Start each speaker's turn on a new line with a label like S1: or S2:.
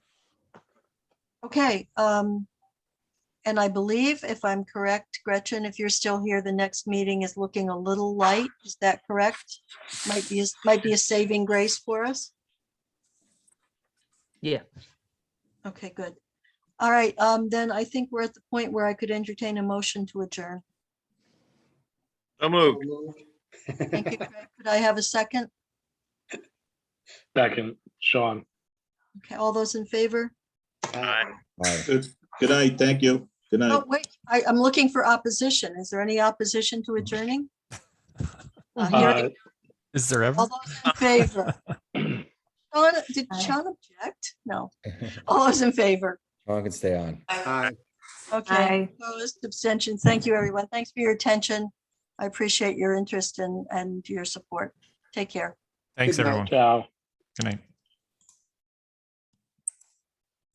S1: Okay, um, and I believe if I'm correct, Gretchen, if you're still here, the next meeting is looking a little light. Is that correct? Might be, might be a saving grace for us.
S2: Yeah.
S1: Okay, good. All right, um, then I think we're at the point where I could entertain a motion to adjourn.
S3: So moved.
S1: Thank you. Craig. Could I have a second?
S3: Second, Sean.
S1: Okay, all those in favor?
S3: Aye.
S4: Aye.
S5: Good good night, thank you. Good night.
S1: Oh, wait, I, I'm looking for opposition. Is there any opposition to adjourning? Uh, hearing-
S3: Uh,
S6: Is there ever?
S1: All those in favor? Sean, did Sean object? No. All those in favor?
S4: Sean can stay on.
S1: Okay, opposed, abstentions. Thank you, everyone. Thanks for your attention. I appreciate your interest and, and your support. Take care.
S6: Thanks, everyone.
S3: Ciao.
S6: Good night.